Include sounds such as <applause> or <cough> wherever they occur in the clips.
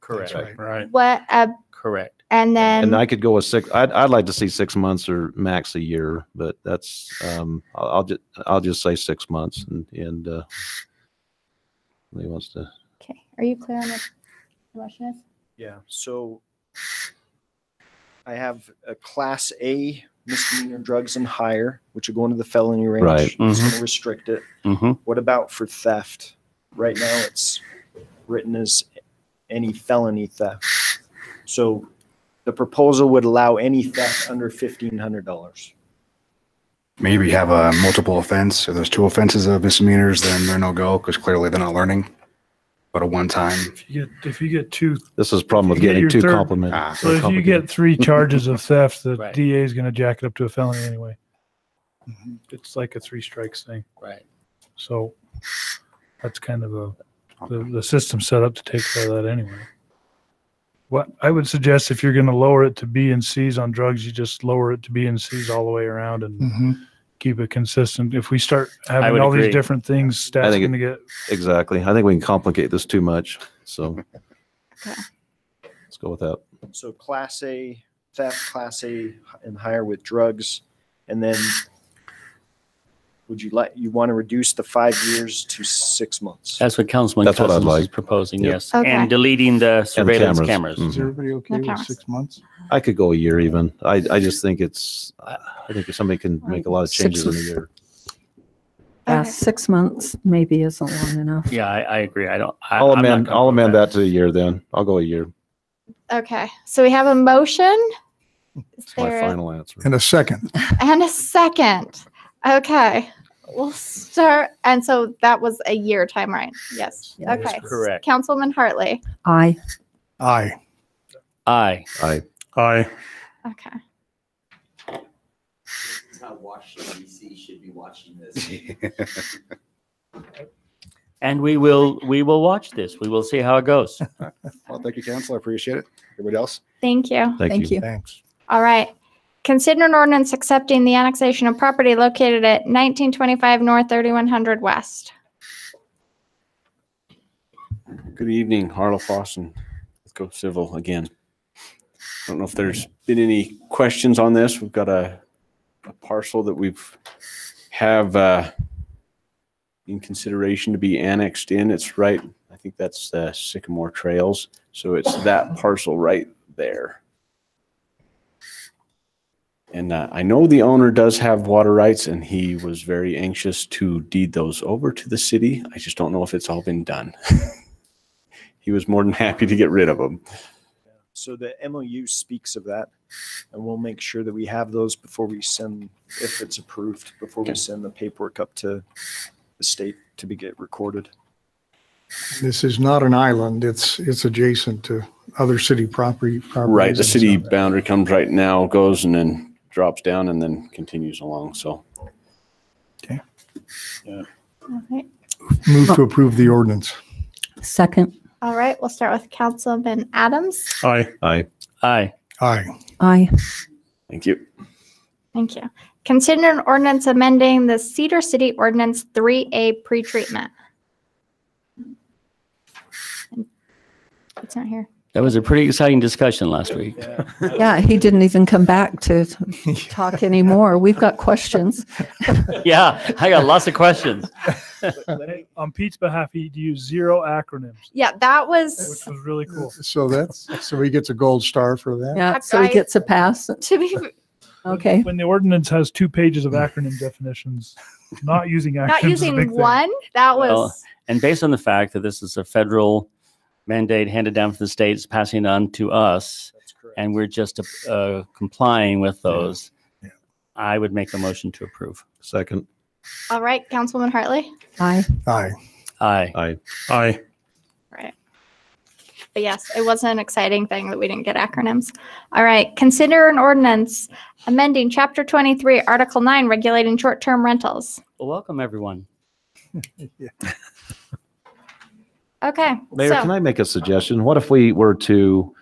Correct, right. Right. What, uh, correct. and And I then, could go with six, I'd, I'd like to see six months or max a year, but that's, um, I'll, I'll just, I'll just say six months and, and, uh, he wants to, okay, are you clear on what the motion is? Yeah. So I have a class A misdemeanor drugs and higher, which would go into the felony range. Right. It's going to restrict it. Mm-hmm. What about for theft? Right now, it's written as any felony theft. So the proposal would allow any theft under fifteen hundred dollars. Maybe have a multiple offense. If there's two offenses of misdemeanors, then they're no go because clearly they're not learning. But a one time, If you get, if you get two, this is a problem with If you get getting your too third- complimented. ah, So so if you complicated. get three charges of theft, the Right. DA is going to jack it up to a felony anyway. Mm-hmm. It's like a three strikes thing. Right. So that's kind of a, the, the system set up to take care of that anyway. What I would suggest if you're going to lower it to B and C's on drugs, you just lower it to B and C's all the way around Hmm. and keep it consistent. If we start having would all agree. these different things, I stats think it- going to get Exactly. I think we can complicate this too much. So let's go with that. So class A theft, class A and higher with drugs, and then would you like, you want to reduce the five years to six months? That's what Councilman That's what I'd Cousins is like. proposing, Yep. yes. Okay. And deleting the And surveillance cameras. Mhm. Is mm-hmm. everybody okay with cameras. six months? I could go a year even. I, I just think it's, I think if somebody can make a lot of Six changes in a months. year. Yeah, Okay. six months maybe isn't long enough. Yeah, I, I agree. I don't. I- I'll I'm not amend, I'll comfortable with amend that to a year then. I'll go a year. Okay, so we have a motion. Is It's my there- final answer. And a second. And a second. Okay, we'll start. And so that was a year time, right? Yes. Yeah, Okay. Correct. Councilman Hartley. I, Aye. Aye. I, high. Okay. Not Washington DC should be watching this. And we will, we will watch this. We will see how it goes. <laughs> Well, thank you, council. I appreciate it. Everybody else? Thank you. thank thank you. you. Thanks. All right. Consider an ordinance accepting the annexation of property located at 1925 North 3100 West. Good evening, Harlow Fawson. Let's go civil again. I don't know if there's been any questions on this. We've got a, a parcel that we've have uh, in consideration to be annexed in. It's right, I think that's uh, Sycamore Trails. So it's that parcel right there. And uh, I know the owner does have water rights and he was very anxious to deed those over to the city. I just don't know if it's all been done he was more than <laughs> happy to get rid of them. So the MOU speaks of that, and we'll make sure that we have those before we send, if it's approved, before we Okay. send the paperwork up to the state to be get recorded. This is not an island. It's, it's adjacent to other city property. Right, properties the and city stuff. boundary comes right now, goes and then drops down and then continues along. So All right. Move to approve the ordinance. Second, All right. We'll start with Councilman Adams. Aye. I, Aye. Aye. I, thank you. Thank you. Consider an ordinance amending the Cedar City Ordinance 3A pretreatment. It's not here. That was a pretty exciting discussion last week. yeah, he didn't even come back to talk anymore. We've got questions. <laughs> Yeah, I got lots of questions. On Pete's behalf, he used zero acronyms, Yeah, that which was, was really cool. So that's, so he gets a gold star for that. Yeah, so he gets a pass. to <laughs> be, Okay. When the ordinance has two pages of acronym definitions, not using acronyms. not is a big using thing. one, that Well, was, And based on the fact that this is a federal mandate handed down from the states, passing on to us, That's correct. and we're just uh, complying with those, I would make a motion to approve. second, Oh. all right, Councilwoman Hartley. I, Aye. Aye. I, Aye. Right. But yes, it was an exciting thing that we didn't get acronyms. All right, consider an ordinance amending Chapter 23, Article 9, regulating short-term rentals. Well, welcome, everyone. Okay, Mayor, can so, I make a suggestion? What if we were to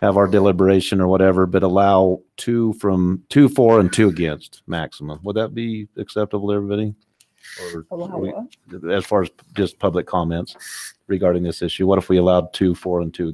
have our deliberation or whatever, but allow two from, two for and two against maximum? Would that be acceptable to everybody? Or we- As far as just public comments, regarding this issue? What if we allowed two, four, and two